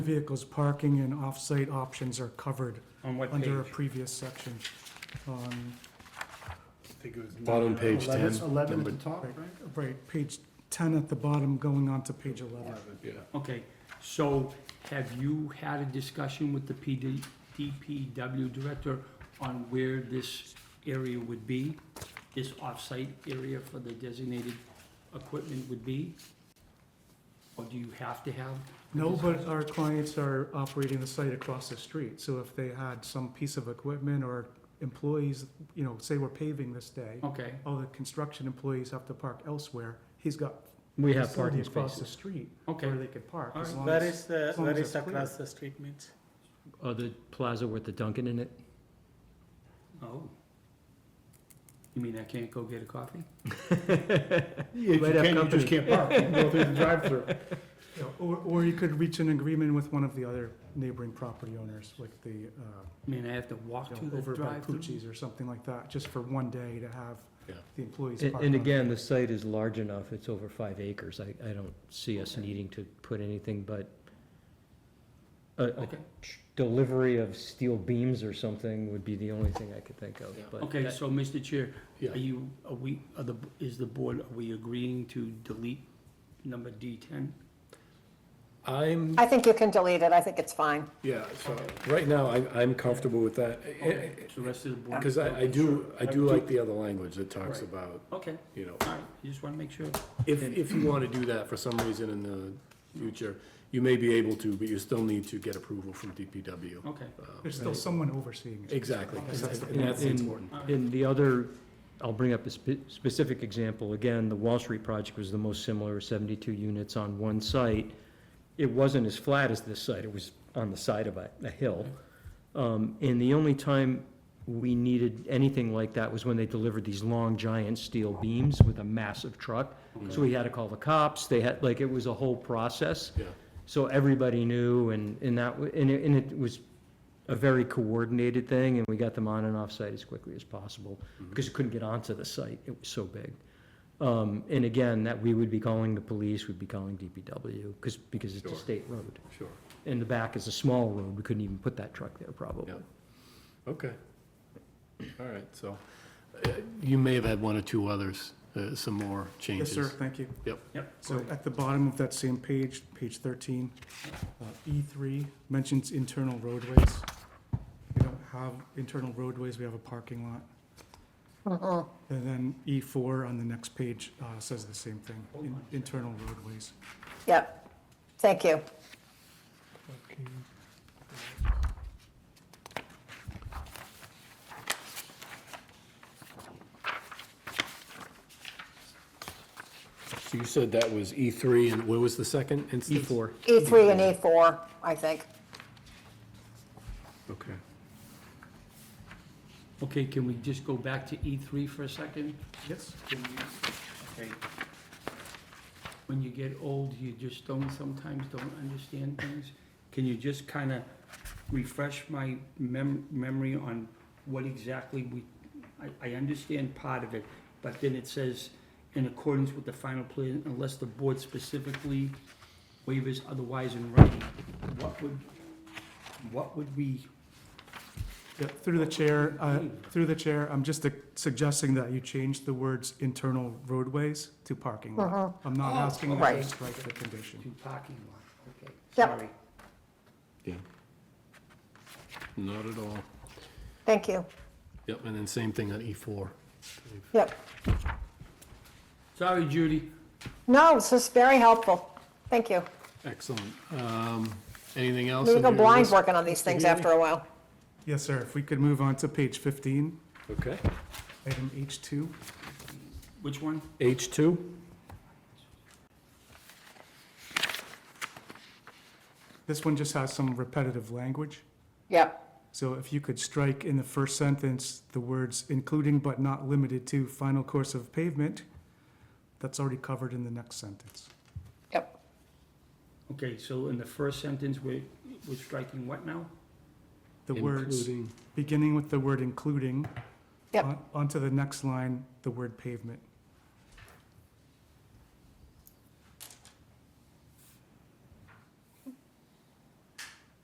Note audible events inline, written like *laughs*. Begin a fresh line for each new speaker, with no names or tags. Vehicles parking and off-site options are covered
On what page?
under a previous section. Um,
Bottom page ten,
Eleven at
number-
the top, right?
Right, right, page 10 at the bottom, going on to page 11.
yeah.
Okay, so have you had a discussion with the PD, DPW director on where this area would be? This off-site area for the designated equipment would be? Or do you have to have? a
No, but
discussion?
our clients are operating the site across the street, so if they had some piece of equipment or employees, you know, say we're paving this day,
Okay,
all the construction employees have to park elsewhere, he's got
We have
facility
parking
across the
spaces.
street
okay,
where they could park. as
Alright.
long
Where
as-
is the,
as long
where
as
is
they're clear.
across the street means?
Oh, the plaza with the Dunkin' in it?
oh. You mean I can't go get a coffee?
Yeah,
Might have company.
can't park, you can go through the drive-through.
Yeah, Or, or *laughs* you could reach an agreement with one of the other neighboring property owners, like the, uh,
I mean, I have to walk
you
to
know,
the
over by
drive-through?
Pucci's or something like that, just for one day to have
Yeah.
the employees
And,
park
and
on it.
again, the site is large enough, it's over five acres, I, I don't see us needing to put anything but a, a
Okay,
delivery of steel beams or something would be the only thing I could think of,
Yeah.
but.
okay,
that-
so Mr. Chair,
Yeah.
Are you, are we, are the, is the board, are we agreeing to delete number D ten?
I'm,
I think you can delete it, I think it's fine.
yeah, so, right now, I'm, I'm comfortable with that,
Okay, so the rest of the board.
because Eh, I, I do, I do like the other language that talks
Right.
about,
Okay,
you know,
all right, you just wanna make sure.
if, if you want to do that for some reason in the future, you may be able to, but you still need to get approval from DPW.
Okay,
Um,
There's still someone overseeing it.
Exactly, and
Yeah,
that's
in-
important.
all right,
And the other, I'll bring up a spe- specific example, again, the Wall Street project was the most similar, seventy-two units on one site. It wasn't as flat as this site, it was on the side of a, a hill. Um, and the only time we needed anything like that was when they delivered these long giant steel beams with a massive truck. So we had to call the cops, they had, like, it was a whole process.
Yeah.
So everybody knew and, and that, wa- and it, and it was a very coordinated thing, and we got them on and off site as quickly as possible,
Mm-hmm.
because you couldn't get onto the site, it was so big. Um, and again, that we would be calling the police, we'd be calling DPW, because, because it's a
Sure.
state road.
Sure,
In the back is a small road, we couldn't even put that truck there probably.
Yeah. okay. All right, so, uh, you may have had one or two others, uh, some more
Yes,
changes.
sir, thank you.
yep,
So at the bottom of that same page, page thirteen, uh, E three mentions internal roadways. We don't have internal roadways, we have a parking lot. And then E four on the next page, uh, says the same thing,
Hold
in-
on a second.
internal roadways.
Yep, thank you.
So you said that was E three, and what was the second
E
instance?
four,
E3 and E4, I think.
Okay.
okay, can we just go back to E three for a second?
Yes?
Can we- Okay. When you get old, you just don't, sometimes don't understand things. Can you just kinda refresh my mem- memory on what exactly we, I, I understand part of it, but then it says, in accordance with the final plan, unless the board specifically waivers otherwise in writing. What would, what would we,
Yeah, through the chair, uh, through the chair, I'm just uh, suggesting that you change the words internal roadways to parking lot. I'm not asking that you
right.
strike the condition.
do parking lot, okay,
Yep.
sorry.
Yeah. Not at all.
Thank you.
Yep, and then same thing on E four.
Yep.
Sorry, Judy.
No, this is very helpful. Thank you.
Excellent. Um, anything else?
We
on
go
your
blind
list?
working on these things after a while.
Yes, sir, if we could move on to page 15,
Okay.
item H2.
Which one?
H two?
This one just has some repetitive language.
Yep,
So if you could strike in the first sentence, the words including but not limited to final course of pavement, that's already covered in the next sentence.
yep.
Okay, so in the first sentence, we're, we're striking what now?
The words,
Including,
beginning with the word including.
Yep.
on- Onto the next line, the word pavement.